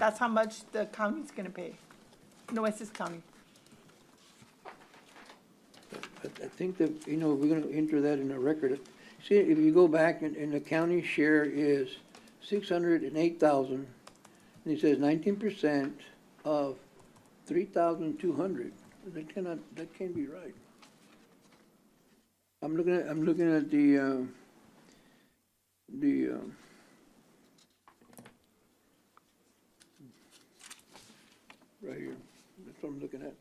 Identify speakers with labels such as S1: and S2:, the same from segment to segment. S1: That's how much the county's gonna pay, Nueces County.
S2: I, I think that, you know, we're gonna enter that in the record. See, if you go back and, and the county share is six hundred and eight thousand, and it says nineteen percent of three thousand two hundred. That cannot, that can't be right. I'm looking at, I'm looking at the, um, the, um, right here, that's what I'm looking at,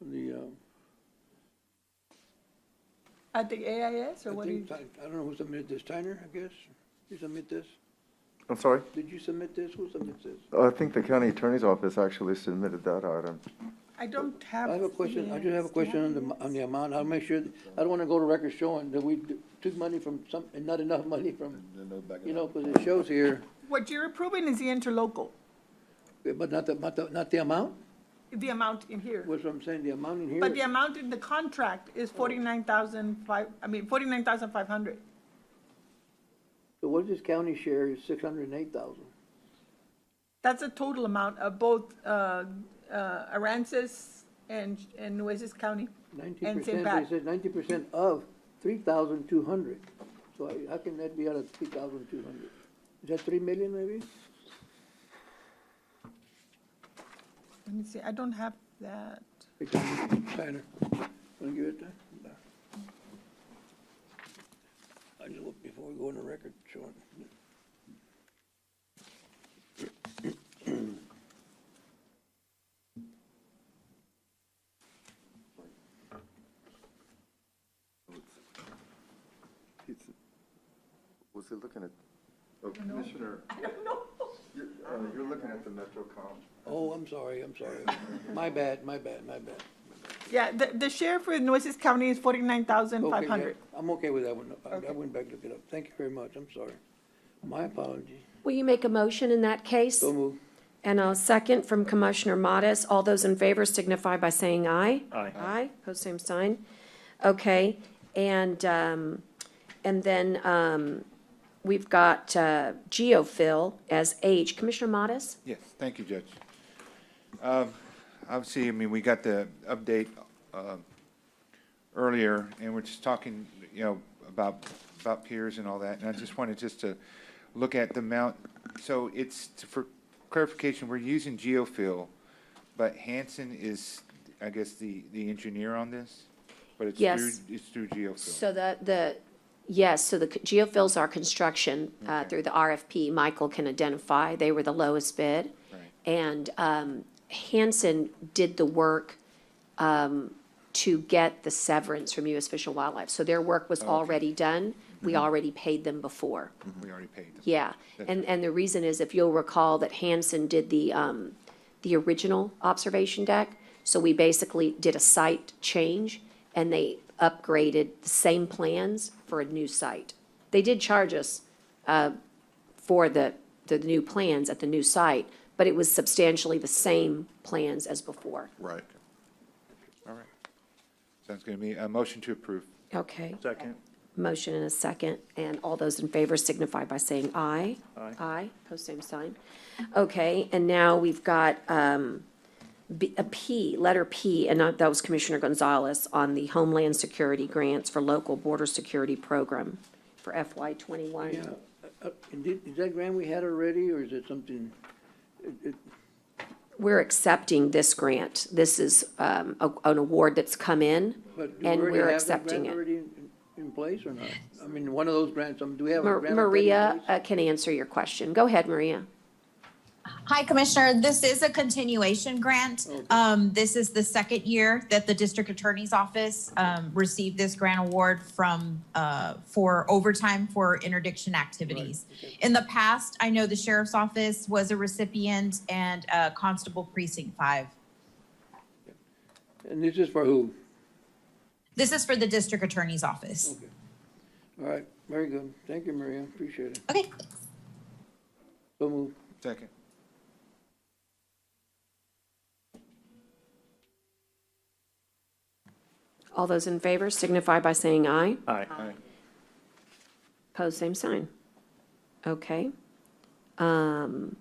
S2: the, um,
S1: At the AIS or
S2: I
S1: what do you?
S2: think, Ti- I don't know who submitted this, Tyner, I guess? You submit this?
S3: I'm sorry?
S2: Did you submit this? Who submits this?
S3: I think the county attorney's office actually submitted that item.
S1: I don't have.
S2: I have a question, I just have a question on the, on the amount, I'll make sure, I don't wanna go to record showing that we d- took money from some, and not enough money from, you know, cause it shows here,
S1: What you're approving is the interlocal,
S2: but not the, not the, not the amount?
S1: the amount in here.
S2: What's what I'm saying, the amount in here?
S1: But the amount in the contract is
S2: Oh.
S1: forty-nine thousand five, I mean, forty-nine thousand five hundred.
S2: So what is this county share is six hundred and eight thousand?
S1: That's the total amount of both, uh, uh, Aransas and, and Nueces County.
S2: Nineteen
S1: And say
S2: percent,
S1: back.
S2: it says nineteen percent of three thousand two hundred. So I- how can that be out of three thousand two hundred? Is that three million maybe?
S1: Let me see, I don't have that.
S2: Tanner, wanna give it to? no. I just, look before we go on the record, Sean.
S3: Was he looking at, oh, Commissioner? I don't know. You're, uh, you're looking at the MetroCom.
S2: Oh, I'm sorry, I'm sorry. My bad, my bad, my bad.
S1: Yeah, the, the share for Nueces County is forty-nine thousand
S2: Okay,
S1: five
S2: yeah,
S1: hundred.
S2: I'm okay with that one. I, I
S1: Okay.
S2: went back to look it up. Thank you very much, I'm sorry. My apologies.
S4: Will you make a motion in that case?
S2: So move.
S4: And a second from Commissioner Modis. All those in favor signify by saying aye.
S5: Aye.
S4: Aye, pose same sign. Okay, and, um, and then, um, we've got, uh, Geophil as H. Commissioner Modis?
S6: Yes, thank you, Judge. Um, Obviously, I mean, we got the update um, earlier, and we're just talking, you know, about, about peers and all that, and I just wanted just to look at the amount. So it's, for clarification, we're using geofill, but Hanson is, I guess, the, the engineer on this? But it's
S4: Yes.
S6: through, it's through geofill.
S4: So the, the, yes, so the geophils are construction uh,
S6: Okay.
S4: through the RFP. Michael can identify, they were the lowest bid.
S6: Right.
S4: And um, Hanson did the work um, to get the severance from U.S. Fish and Wildlife. So their work was already done. We
S6: Mm-hmm.
S4: already paid them before.
S6: We already paid them.
S4: Yeah, and, and the reason is, if you'll recall, that Hanson did the, um, the original observation deck. So we basically did a site change, and they upgraded the same plans for a new site. They did charge us, uh, for the, the new plans at the new site, but it was substantially the same plans as before.
S3: Right.
S6: All right. Sounds good to me. A motion to approve.
S4: Okay.
S5: Second.
S4: Motion and a second, and all those in favor signify by saying aye.
S5: Aye.
S4: Aye, pose same sign. Okay, and now we've got um, B- a P, letter P, and that was Commissioner Gonzalez on the Homeland Security Grants for Local Border Security Program for FY
S2: Yeah,
S4: twenty-one.
S2: uh, uh, and did- is that grant we had already, or is it something? it- it-
S4: We're accepting this grant. This is um, a- an award that's come in,
S2: But do we
S4: and
S2: already have
S4: we're
S2: that
S4: accepting
S2: grant
S4: it.
S2: Already in, in place or not? I mean, one of those grants, um, do we have a
S4: Mar-
S2: grant? already in
S4: Maria
S2: place?
S4: uh, can answer your question. Go ahead, Maria.
S7: Hi, Commissioner. This is a continuation grant. Um, this is the second year that the District Attorney's Office, um, received this grant award from, uh, for overtime for interdiction activities. In the past, I know the Sheriff's Office was a recipient and, uh, Constable Precinct Five.
S4: uh,
S2: And this is for who?
S7: This is for the District Attorney's Office.
S2: All right, very good. Thank you, Maria. Appreciate it.
S7: Okay,
S2: So move.
S6: Second.
S4: All those in favor signify by saying aye.
S5: Aye.
S6: Aye.
S4: Pose same sign. Okay. Um,